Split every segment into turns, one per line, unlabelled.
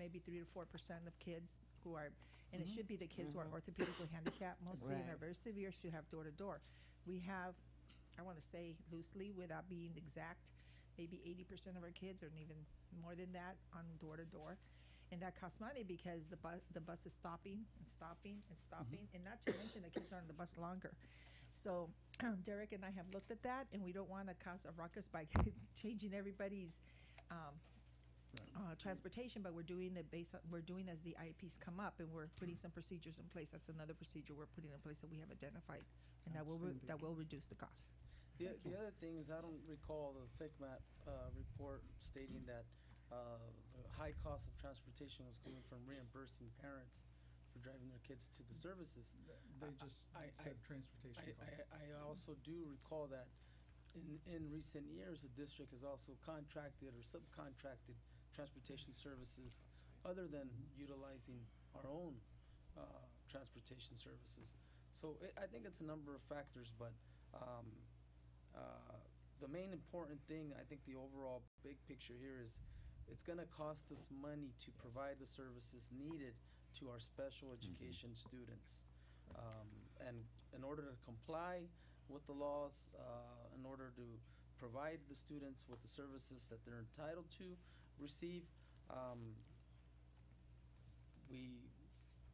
maybe three to four percent of kids who are, and it should be the kids who are orthopedically handicapped mostly, and are
Right.
very severe, should have door to door. We have, I want to say loosely, without being exact, maybe eighty percent of our kids, or even more than that, on door to door. And that costs money because the bus, the bus is stopping and stopping and stopping, and not to mention the kids are on the bus longer. So Derek and I have looked at that, and we don't want to cause a ruckus by changing everybody's um, uh, transportation, but we're doing it based on, we're doing as the IEPs come up, and we're putting some procedures in place. That's another procedure we're putting in place that we have identified, and that will, re- that will reduce the cost.
The, the other thing is, I don't recall the FICMAT uh, report stating that uh, the high cost of transportation was coming from reimbursing parents for driving their kids to the services.
They just
I- I-
said transportation
I,
costs.
I, I also do recall that in, in recent years, the district has also contracted or subcontracted transportation services other than utilizing our own uh, transportation services. So it, I think it's a number of factors, but um, uh, the main important thing, I think the overall big picture here is it's going to cost us money to provide the services needed to our special education students. Um, and in order to comply with the laws, uh, in order to provide the students with the services that they're entitled to receive, um, we,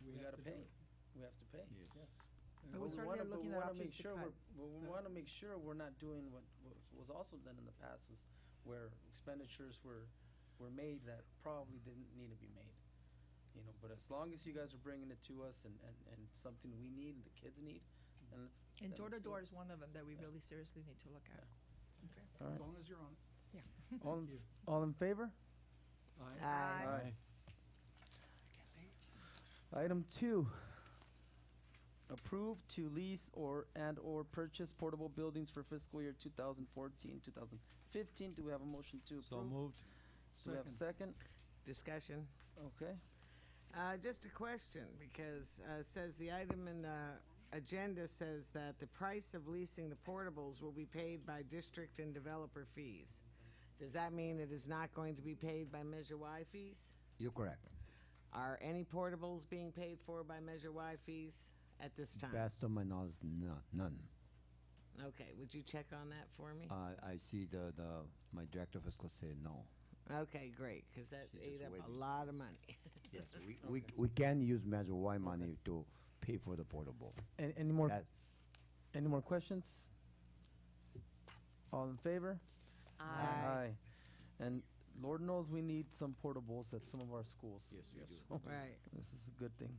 we
have
gotta
to do
pay.
it.
we have to pay.
Yes.
But we're
But we
certainly
wanna- but
looking at
we wanna
options
make
to
sure
cut.
we're- But we want to make sure we're not doing what what was also done in the past is where expenditures were, were made that probably didn't need to be made. You know, but as long as you guys are bringing it to us and, and, and something we need and the kids need, then let's. then
And door to
let's do
door
it.
is one of them that we
Yeah.
really seriously need to look at. Okay.
All
As
right.
long as you're on it.
All,
Thank
in-
you.
all in favor?
Aye.
Aye.
Item two, approve to lease or and/or purchase portable buildings for fiscal year 2014, 2015. Do we have a motion to approve?
So moved.
Do we have a
Second.
second?
Discussion.
Okay.
Uh, Just a question, because uh, it says the item in the agenda says that the price of leasing the portables will be paid by district and developer fees. Does that mean it is not going to be paid by Measure Y fees?
You're correct.
Are any portables being paid for by Measure Y fees at this time?
Best of my knowledge, no, none.
Okay, would you check on that for me?
I I see the, the, my director of fiscal say no.
Okay, great, because that
She's
ate
just
up a
waiting.
lot of money.
Yes, we, we, we can use Measure Y money to pay for the portable.
Any, any more,
That-
any more questions? All in favor? Aye. And Lord knows we need some portables at some of our schools.
Yes, we do.
Right.
This is a good thing.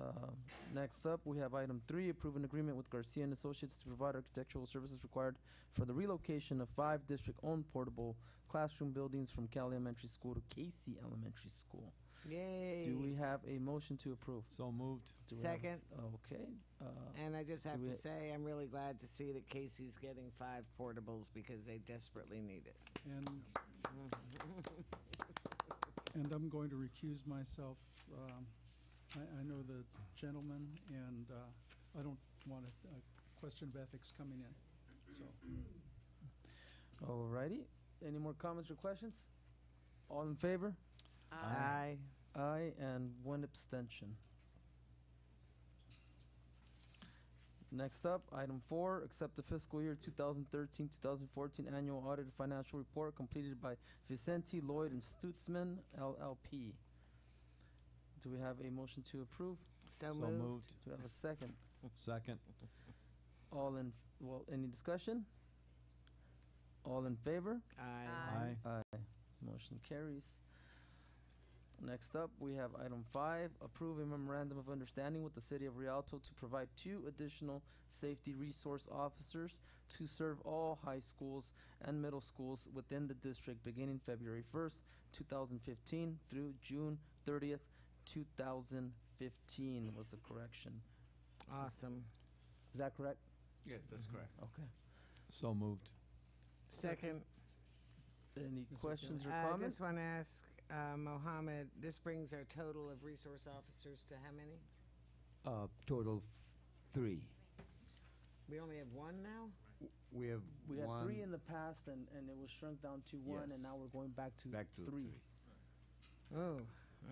Um, Next up, we have item three, approve an agreement with Garcia and Associates to provide architectural services required for the relocation of five district-owned portable classroom buildings from Cal Elementary School to Casey Elementary School.
Yay.
Do we have a motion to approve?
So moved.
Do we have a
Second.
s- Okay, uh,
And I just have
Do
to
we-
say, I'm really glad to see that Casey's getting five portables because they desperately need it.
And, and I'm going to recuse myself. Um, I, I know the gentleman, and uh, I don't want a a question of ethics coming in, so.
alrighty. Any more comments or questions? All in favor?
Aye.
Aye, and one abstention. Next up, item four, accept the fiscal year 2013-2014 annual audit financial report completed by Vicente Lloyd and Stutzman LLP. Do we have a motion to approve?
So
So
moved.
moved.
Do we have a second?
Second.
All in, well, any discussion? All in favor?
Aye.
Aye.
Aye. Motion carries. Next up, we have item five, approve a memorandum of understanding with the city of Rialto to provide two additional safety resource officers to serve all high schools and middle schools within the district beginning February first, two thousand fifteen through June thirtieth, two thousand fifteen was the correction.
Awesome.
Is that correct?
Yes, that's correct.
Okay.
So moved.
Second, uh,
Any
Mr.
questions or
I
comments?
just want to ask uh, Mohammed, this brings our total of resource officers to how many?
Uh, total f- three.
We only have one now?
We have
We had three in
one,
the past and, and it was shrunk down to one and
Yes.
now we're going back to
back to three.
Oh,